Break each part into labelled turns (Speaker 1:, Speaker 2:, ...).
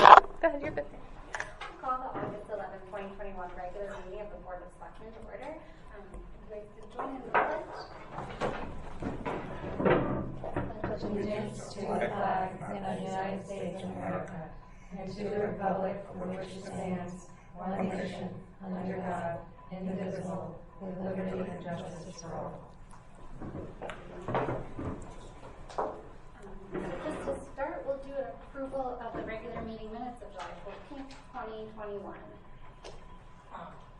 Speaker 1: Go ahead, you're good.
Speaker 2: Call the August 11, 2021 regular meeting of the Board of Selectmen to order. Um, Would you like to join in the pledge?
Speaker 3: pledge allegiance to the flag of the United States of America and to the republic for which it stands, one nation, under God, indivisible, with liberty and justice for all.
Speaker 2: Um, Just to start, we'll do an approval of the regular meeting minutes of July 14, 2021.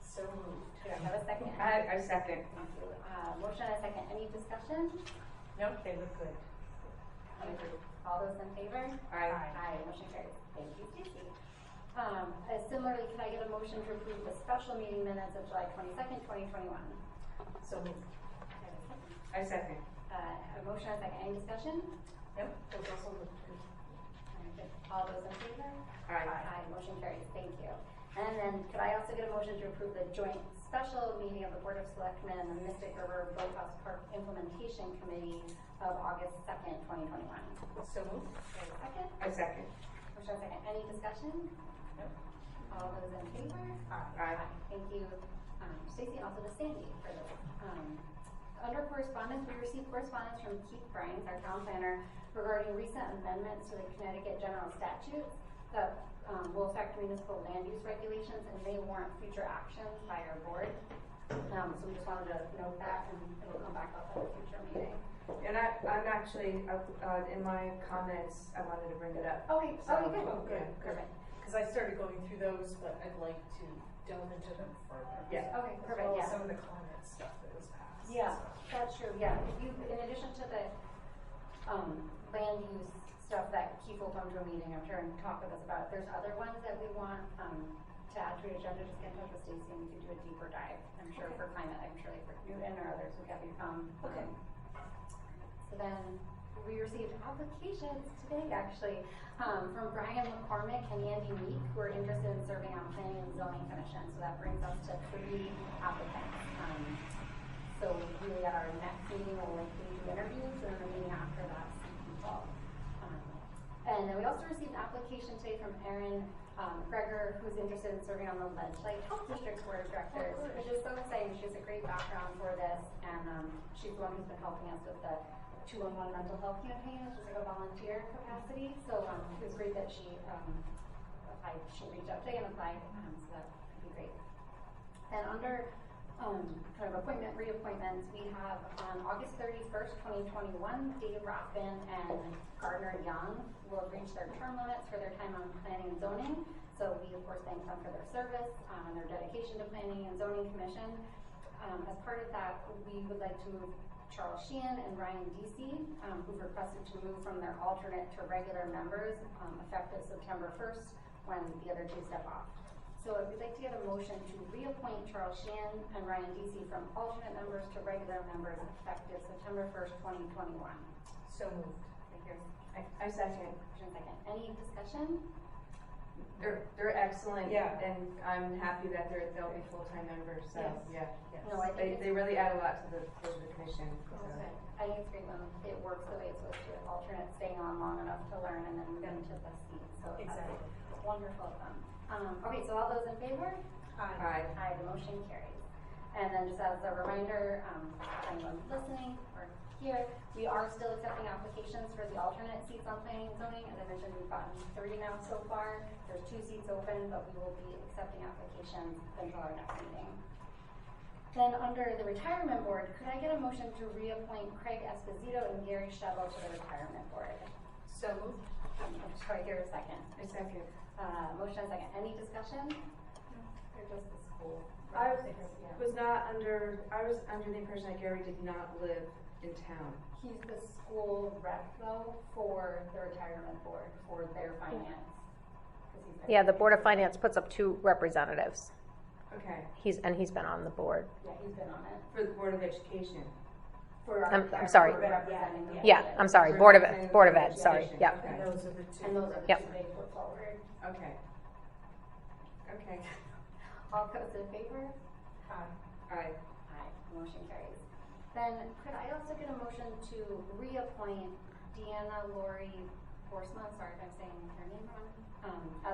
Speaker 2: So moved. Do I have a second?
Speaker 4: I, I second.
Speaker 2: Thank you. Uh, Motion and a second. Any discussion?
Speaker 4: No, they look good.
Speaker 2: All those in favor?
Speaker 4: Aye.
Speaker 2: Aye, motion carries. Thank you, Stacy. Um, uh, Similarly, can I get a motion to approve the special meeting minutes of July 22nd, 2021?
Speaker 4: So moved.
Speaker 2: Can I have a
Speaker 4: I second.
Speaker 2: second? Uh, A motion and a second. Any discussion?
Speaker 4: No, those also look good.
Speaker 2: Very good. All those in favor?
Speaker 4: Aye.
Speaker 2: motion carries. Thank you. And then could I also get a motion to approve the joint special meeting of the Board of Selectmen and the Mystic River Boathouse Park Implementation Committee of August 2nd, 2021?
Speaker 4: So moved.
Speaker 2: Can I have a
Speaker 4: I second.
Speaker 2: second? Motion and a second. Any discussion?
Speaker 4: No.
Speaker 2: All those in favor?
Speaker 4: Aye.
Speaker 2: Thank you, um, Stacy, also to Sandy for this. Um, Under correspondence, we received correspondence from Keith Brines, our town planner, regarding recent amendments to the Connecticut general statutes that um, will affect municipal land use regulations and may warrant future actions by our board. Um, So we just wanted to note that and it will come back up at a future meeting.
Speaker 5: And I, I'm actually, uh, uh, in my comments, I wanted to bring it up.
Speaker 2: Okay,
Speaker 5: So-
Speaker 2: okay, good,
Speaker 6: Oh, good,
Speaker 2: good,
Speaker 6: good.
Speaker 2: perfect.
Speaker 6: Because I started going through those, but I'd like to delve into them further.
Speaker 5: Yeah.
Speaker 2: Okay,
Speaker 6: As
Speaker 2: perfect,
Speaker 6: well as
Speaker 2: yeah.
Speaker 6: some of the comment stuff that was passed.
Speaker 2: Yeah,
Speaker 6: so.
Speaker 2: that's true, yeah, if you, in addition to the, um, land use stuff that Keith will come to a meeting, I'm sure, and talk with us about, if there's other ones that we want, um, to add to your agenda, just get in touch with Stacy and we can do a deeper dive, I'm sure for climate, I'm sure like for Newton or others would have you come.
Speaker 6: Okay.
Speaker 2: um, So then, we received applications today, actually, um, from Brian McCormick and Andy Meek, who are interested in serving on planning and zoning commission, so that brings us to three applicants. Um, So we, at our next meeting, will likely do interviews, and then the meeting after that, see people. Um, And then we also received an application today from Erin um, Gregor, who's interested in serving on the Ledgely Health District Board of Directors, which is so exciting, she has a great background for this, and um, she's the one who's been helping us with the two-on-one mental health campaign, which is like a volunteer capacity. So um, it was great that she um, applied, she reached out today and applied, um, so that would be great. And under um, kind of appointment, reappointments, we have on August thirty-first, twenty twenty-one, Dave Rothman and Gardner Young will have reached their term limits for their time on planning and zoning. So we, of course, thank them for their service, um, and their dedication to planning and zoning commission. Um, as part of that, we would like to move Charles Sheehan and Ryan Deasy, um, who've requested to move from their alternate to regular members, um, effective September first, when the other two step off. So if you'd like to get a motion to reappoint Charles Sheehan and Ryan Deasy from alternate members to regular members effective September first, twenty twenty-one.
Speaker 4: So moved.
Speaker 2: Here's
Speaker 5: I, I second.
Speaker 2: motion second. Any discussion?
Speaker 5: They're, they're excellent.
Speaker 4: Yeah.
Speaker 5: And I'm happy that they're, they'll be full-time members, so,
Speaker 2: Yes.
Speaker 5: yeah.
Speaker 2: No, I
Speaker 5: They,
Speaker 2: think
Speaker 5: they
Speaker 2: it's,
Speaker 5: really add a lot to the, to the commission, so.
Speaker 2: I think it's great when it works the way it's supposed to, with alternate staying on long enough to learn and then move into the seat, so that's
Speaker 6: Exactly.
Speaker 2: wonderful of them. Um, okay, so all those in favor?
Speaker 6: Aye.
Speaker 5: Aye.
Speaker 2: Aye, the motion carries. And then just as a reminder, um, if anyone listening or here, we are still accepting applications for the alternate seats on planning and zoning. As I mentioned, we've gotten three now so far. There's two seats open, but we will be accepting applications until our next meeting. Then under the retirement board, could I get a motion to reappoint Craig Esposito and Gary Shovel to the retirement board? Um,
Speaker 4: So moved.
Speaker 2: Troy, here a second.
Speaker 5: I second.
Speaker 2: Uh, motion and second. Any discussion? Or just the school?
Speaker 5: I was-
Speaker 2: Yeah.
Speaker 5: Was not under, I was under the impression that Gary did not live in town.
Speaker 2: He's the school rep though for the retirement board for their finance. 'Cause he's been-
Speaker 1: Yeah, the Board of Finance puts up two representatives.
Speaker 5: Okay.
Speaker 1: He's, and he's been on the board.
Speaker 2: Yeah, he's been on it.
Speaker 5: For the Board of Education.
Speaker 2: For our-
Speaker 1: I'm- I'm
Speaker 2: our
Speaker 1: sorry.
Speaker 2: board representing the
Speaker 1: Yeah,
Speaker 2: budget.
Speaker 1: I'm sorry, Board of, Ed- Board of Ed, sorry,
Speaker 5: Education,
Speaker 1: yep.
Speaker 6: And
Speaker 5: okay.
Speaker 6: those are the two.
Speaker 2: And those are the
Speaker 1: Yep.
Speaker 2: two they put forward.
Speaker 5: Okay. Okay.
Speaker 2: All those in favor?
Speaker 6: Aye.
Speaker 5: Aye.
Speaker 2: Aye, motion carries. Then could I also get a motion to reappoint Deanna Lori Borsma, sorry if I'm saying her name wrong, um,